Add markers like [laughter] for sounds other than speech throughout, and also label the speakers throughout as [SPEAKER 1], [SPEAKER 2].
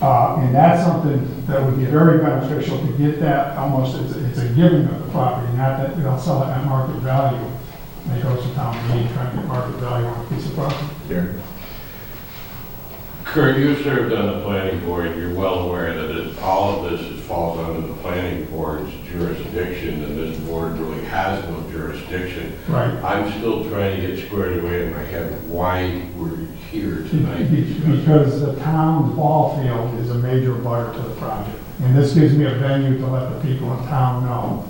[SPEAKER 1] Uh, And that's something that would be very beneficial to get that, almost, it's a- it's a giving of the property, not that they'll sell it at market value. They go to town meeting, try to get market value on a piece of property.
[SPEAKER 2] Darren?
[SPEAKER 3] Kurt, you served on the planning board, you're well aware that it- all of this is- falls under the planning board's jurisdiction, and this board really has no jurisdiction.
[SPEAKER 1] Right.
[SPEAKER 3] I'm still trying to get squared away in my head why we're here
[SPEAKER 1] [laughs]
[SPEAKER 3] tonight.
[SPEAKER 1] Because the town ball field is a major butter to the project. And this gives me a venue to let the people in town know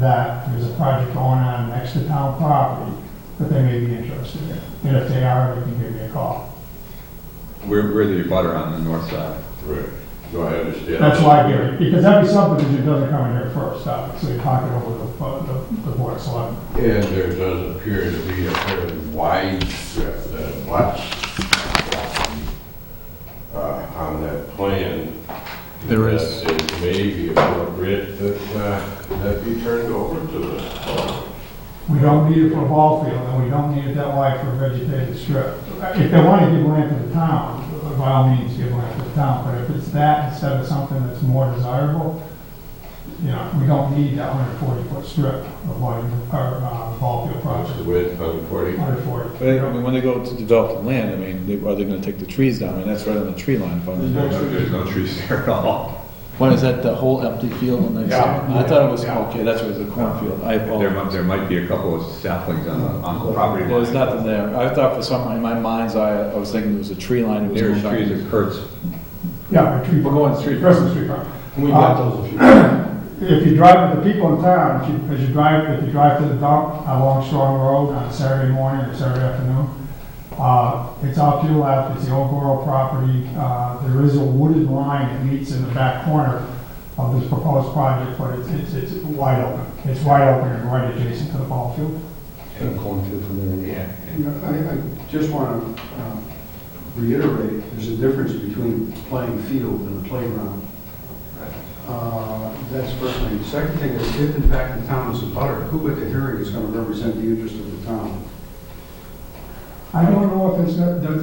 [SPEAKER 1] that there's a project going on next to town property that they may be interested in. And if they are, they can give me a call.
[SPEAKER 2] We're, we're the butter on the north side.
[SPEAKER 3] Right. Do I understand?
[SPEAKER 1] That's why I give it, because every subdivision doesn't come in here first, obviously, you talk it over the, the- the board of selectmen.
[SPEAKER 3] And there does appear to be a fairly wide strip that abuts uh, on that plan.
[SPEAKER 4] There is.
[SPEAKER 3] That it may be appropriate that, uh, that be turned over to us.
[SPEAKER 1] We don't need it for a ball field, and we don't need it that wide for a vegetated strip. If they want to give land to the town, by all means, give land to the town, but if it's that instead of something that's more desirable, you know, we don't need that hundred forty foot strip of wide, or, uh, ball field
[SPEAKER 3] What's
[SPEAKER 1] project,
[SPEAKER 3] the width on 40?
[SPEAKER 1] hundred forty.
[SPEAKER 4] But I mean, when they go to develop the land, I mean, they- are they gonna take the trees down? I mean, that's right on the tree line. if I'm-
[SPEAKER 2] There's no trees there at all.
[SPEAKER 4] What, is that the whole empty field on the
[SPEAKER 1] Yeah.
[SPEAKER 4] I thought it was,
[SPEAKER 1] Yeah.
[SPEAKER 4] okay, that's where it's a cornfield. I
[SPEAKER 2] There
[SPEAKER 4] apologize.
[SPEAKER 2] might, there might be a couple of saplings on the, on the property
[SPEAKER 4] There's
[SPEAKER 2] line.
[SPEAKER 4] nothing there. I thought for some, in my mind's eye, I was thinking it was a tree line. It was
[SPEAKER 2] There's
[SPEAKER 4] all-
[SPEAKER 2] trees at Kurt's.
[SPEAKER 1] Yeah, a tree.
[SPEAKER 4] We're going street. Uh,
[SPEAKER 1] Christmas tree farm.
[SPEAKER 3] We
[SPEAKER 1] got
[SPEAKER 3] those.
[SPEAKER 1] If you drive with the people in town, if you, as you drive, if you drive to the dump along Strong Road on Saturday morning or Saturday afternoon, uh, it's off to your left, it's the old Borough property, uh, there is a wooded line that meets in the back corner of this proposed project, but it's, it's, it's wide open, it's wide open and right adjacent to the ball field.
[SPEAKER 3] Yeah.
[SPEAKER 5] You know, I, I just want to reiterate, there's a difference between playing field and a playground. Uh, That's first thing. The Second thing is, if in fact the town is a butter, who at the hearing is going to represent the interest of the town?
[SPEAKER 1] I don't know if it's, does,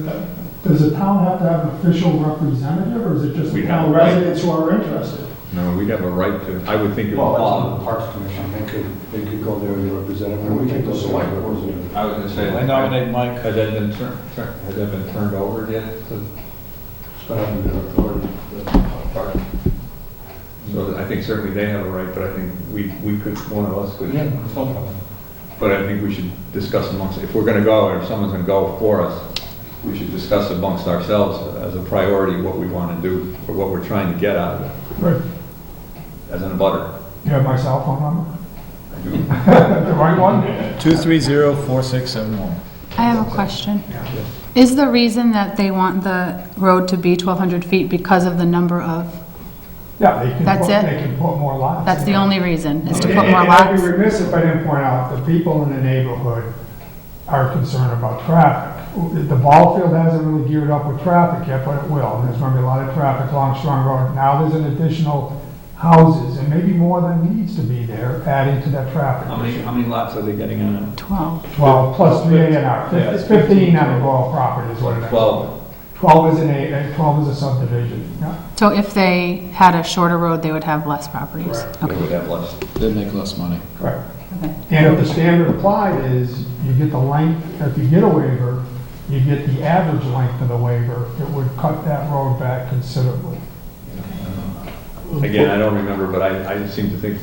[SPEAKER 1] does the town have to have an official representative, or is it just the
[SPEAKER 2] We have
[SPEAKER 1] town
[SPEAKER 2] a right.
[SPEAKER 1] residents who are interested?
[SPEAKER 2] No, we'd have a right to, I would think it would fall.
[SPEAKER 5] Parks Commission, they could, they could go there and represent them. We could go select boards and...
[SPEAKER 2] I was gonna say.
[SPEAKER 4] I nominate Mike.
[SPEAKER 2] Has that been turned, has that been turned over yet? to- uh, So I think certainly they have a right, but I think we, we could, one of us could. But I think we should discuss amongst, if we're gonna go, or if someone's gonna go for us, we should discuss amongst ourselves as a priority what we wanna do, or what we're trying to get out of it,
[SPEAKER 1] Right.
[SPEAKER 2] as in a butter.
[SPEAKER 1] You have my cell phone number? The right one?
[SPEAKER 4] 230-4671.
[SPEAKER 6] I have a question. Is the reason that they want the road to be 1,200 feet because of the number of,
[SPEAKER 1] Yeah, they can.
[SPEAKER 6] That's
[SPEAKER 1] put-
[SPEAKER 6] it?
[SPEAKER 1] They can put more lots.
[SPEAKER 6] that's the
[SPEAKER 1] in.
[SPEAKER 6] only reason, is to
[SPEAKER 1] And-
[SPEAKER 6] put more
[SPEAKER 1] and I'd
[SPEAKER 6] lots?
[SPEAKER 1] be remiss if I didn't point out, the people in the neighborhood are concerned about traffic. The ball field hasn't really geared up with traffic yet, but it will, and there's gonna be a lot of traffic along Strong Road. Now there's an additional houses, and maybe more than needs to be there, adding to that traffic.
[SPEAKER 2] How many, how many lots are they getting on
[SPEAKER 6] 12.
[SPEAKER 1] Twelve plus three A and R,
[SPEAKER 2] Yeah.
[SPEAKER 1] it's fifteen on the ball property is what it
[SPEAKER 2] it?
[SPEAKER 1] is.
[SPEAKER 2] Twelve.
[SPEAKER 1] Twelve is an A, and twelve is a subdivision, yeah.
[SPEAKER 6] So if they had a shorter road, they would have less properties?
[SPEAKER 1] Correct.
[SPEAKER 2] They
[SPEAKER 6] Okay.
[SPEAKER 2] would have less.
[SPEAKER 4] They make less money.
[SPEAKER 1] Correct.
[SPEAKER 6] Okay.
[SPEAKER 1] And if the standard applied is, you get the length, if you get a waiver, you get the average length of the waiver, it would cut that road back considerably.
[SPEAKER 2] Again, I don't remember, but I, I seem to think,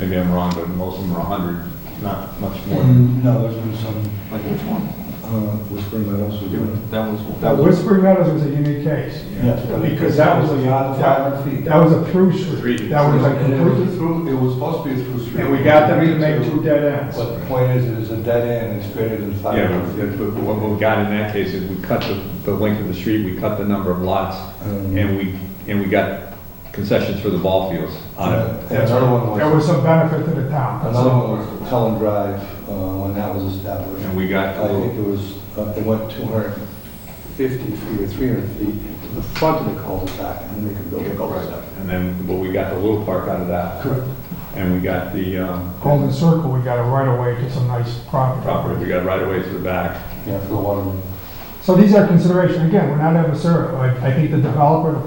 [SPEAKER 2] maybe I'm wrong, but most of them are a hundred, not much more than.
[SPEAKER 1] Um,
[SPEAKER 5] No, there's been some,
[SPEAKER 2] Like which one?
[SPEAKER 5] uh, whispering that also...
[SPEAKER 2] That was.
[SPEAKER 1] Now, Whispering Meadows was a unique case. Because that was the
[SPEAKER 5] beyond 500 feet.
[SPEAKER 1] That was a through street.
[SPEAKER 3] Three.
[SPEAKER 1] That was like
[SPEAKER 5] And it was
[SPEAKER 1] completely,
[SPEAKER 5] a through, it was supposed to be a through street.
[SPEAKER 1] and we got them to make two dead ends.
[SPEAKER 5] But the point is, it is a dead end, it's greater than five
[SPEAKER 2] Yeah,
[SPEAKER 5] hundred
[SPEAKER 2] but
[SPEAKER 5] feet.
[SPEAKER 2] that's what what we got in that case is we cut the, the length of the street, we cut the number of lots,
[SPEAKER 5] Um,
[SPEAKER 2] and we, and we got concessions for the ball fields out of it.
[SPEAKER 5] And Another one
[SPEAKER 1] There
[SPEAKER 5] was,
[SPEAKER 1] was some benefit to the town.
[SPEAKER 5] another one was Cullen Drive, uh, when that was established.
[SPEAKER 2] And we got a
[SPEAKER 5] I think
[SPEAKER 2] little,
[SPEAKER 5] it was, uh, it went two hundred fifty feet or three hundred feet to the front of the cul-de-sac, and they could build a cul-de-sac.
[SPEAKER 2] and then, but we got the little park out of that,
[SPEAKER 5] Correct.
[SPEAKER 2] and we got the, um,
[SPEAKER 1] Golden Circle, we got a right of way to some nice property.
[SPEAKER 2] property, we got right away to the back.
[SPEAKER 5] Yeah, for the water.
[SPEAKER 1] So these are considerations. Again, we're not adversarial. I, I think the developer, the